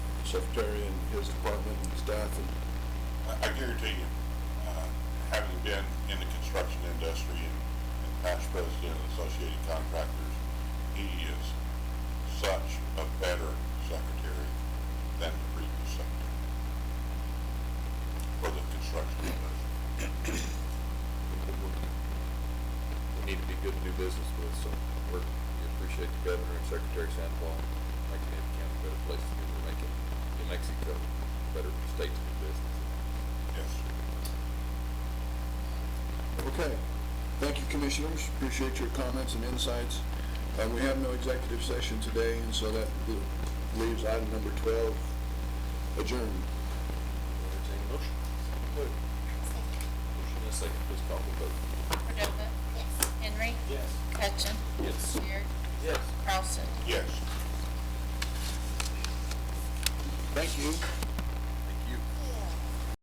secretary and his department and staff and I I guarantee you, uh, having been in the construction industry and and past president of Associated Contractors, he is such a better secretary than the previous secretary for the construction industry. people we need to be good to do business with, so we're, we appreciate the governor and Secretary Sandoval making Ada County a better place to be, we're making New Mexico a better state to do business. Yes. Okay. Thank you, commissioners. Appreciate your comments and insights. Uh, we have no executive session today, and so that leaves item number twelve adjourned. Entertaining motion. Motion and a second, please call the vote. Cordova? Yes. Henry? Yes. Hutchin? Yes. Beard? Yes. Carlson? Yes. Thank you.